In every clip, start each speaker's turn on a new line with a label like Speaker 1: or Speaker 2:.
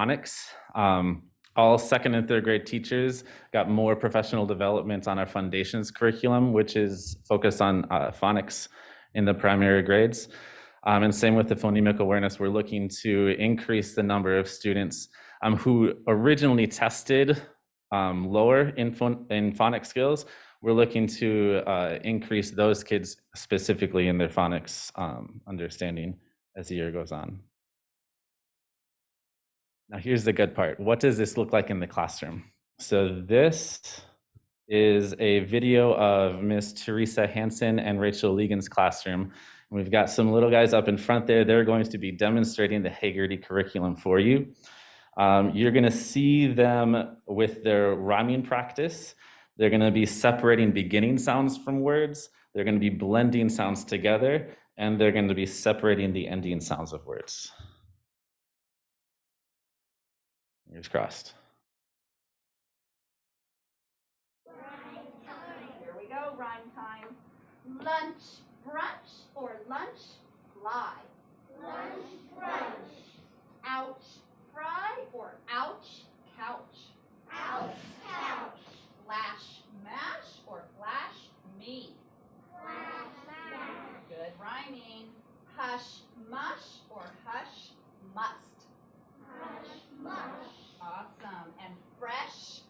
Speaker 1: phonics. Um, all second and third grade teachers got more professional development on our foundations curriculum, which is focused on uh, phonics in the primary grades. Um, and same with the phonemic awareness, we're looking to increase the number of students um, who originally tested um, lower in, phon- in phonics skills. We're looking to uh, increase those kids specifically in their phonics um, understanding as the year goes on. Now, here's the good part. What does this look like in the classroom? So, this is a video of Miss Teresa Hansen and Rachel Legan's classroom. We've got some little guys up in front there. They're going to be demonstrating the Hagerty curriculum for you. Um, you're going to see them with their rhyming practice. They're going to be separating beginning sounds from words. They're going to be blending sounds together, and they're going to be separating the ending sounds of words. Fingers crossed.
Speaker 2: Here we go, rhyme time. Lunch, brunch, or lunch, fly. Lunch, brunch. Ouch, fry, or ouch, couch. Ouch, couch. Flash, mash, or flash, me. Flash, mash. Good rhyming. Hush, mush, or hush, must. Hush, mush. Awesome. And fresh,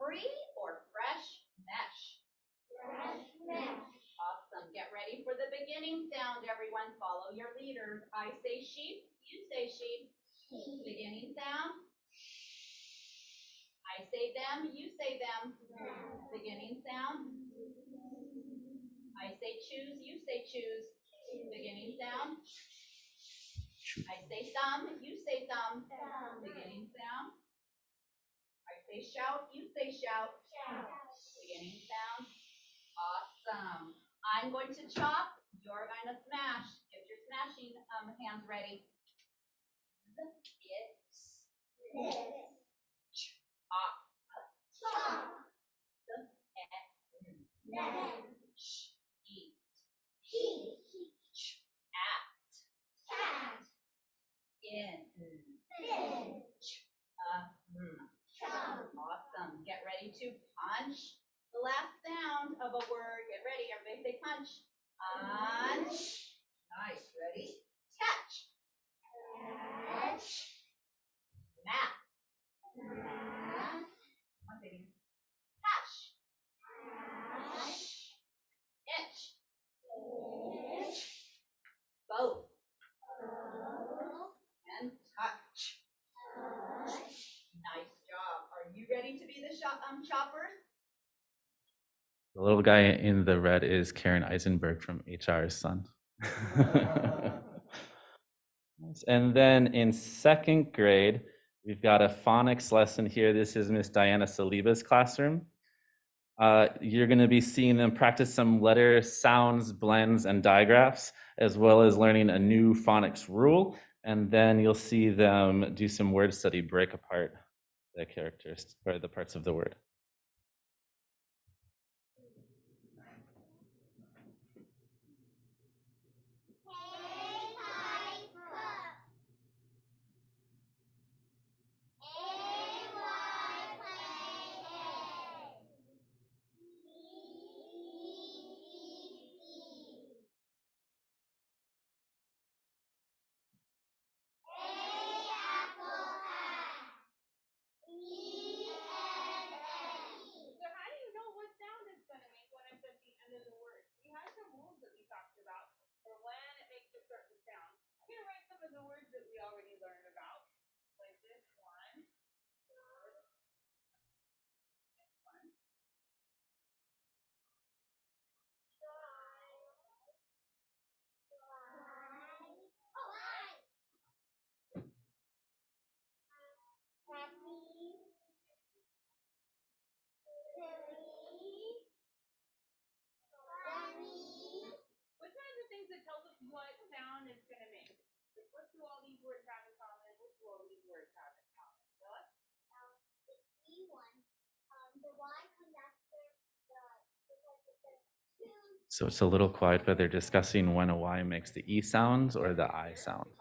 Speaker 2: free, or fresh, mesh. Awesome. Get ready for the beginning sound, everyone. Follow your leader. I say sheep, you say sheep. Beginning sound. I say them, you say them. Beginning sound. I say choose, you say choose. Beginning sound. I say thumb, you say thumb. Beginning sound. I say shout, you say shout. Beginning sound. Awesome. I'm going to chop, you're going to smash. If you're smashing, um, hands ready. It's chop. Chop. Eat. Ch- At. In. Ch- uh, mm. Awesome. Get ready to punch the last sound of a word. Get ready, everybody say punch. Punch. Nice, ready? Catch. Catch. Map. One second. Hash. Itch. Itch. Both. And touch. Nice job. Are you ready to be the shop, um, choppers?
Speaker 1: The little guy in the red is Karen Eisenberg from HR's son. Nice. and then in second grade, we've got a phonics lesson here. This is Miss Diana Saliba's classroom. Uh, you're going to be seeing them practice some letter sounds, blends, and digraphs, as well as learning a new phonics rule. And then you'll see them do some word study, break apart the characters or the parts of the word.
Speaker 3: So how do you know what sound it's gonna make when it's at the end of the word? We had some rules that we talked about for when it makes a certain sound. I'm gonna write some of the words that we already learned about, like this one. This one. What are the things that tells us what sound it's gonna make? Like, what do all these words have in common? What do all these words have in common? What?
Speaker 1: So it's a little quiet, but they're discussing when a Y makes the E sound or the I sound.
Speaker 3: Uh-huh.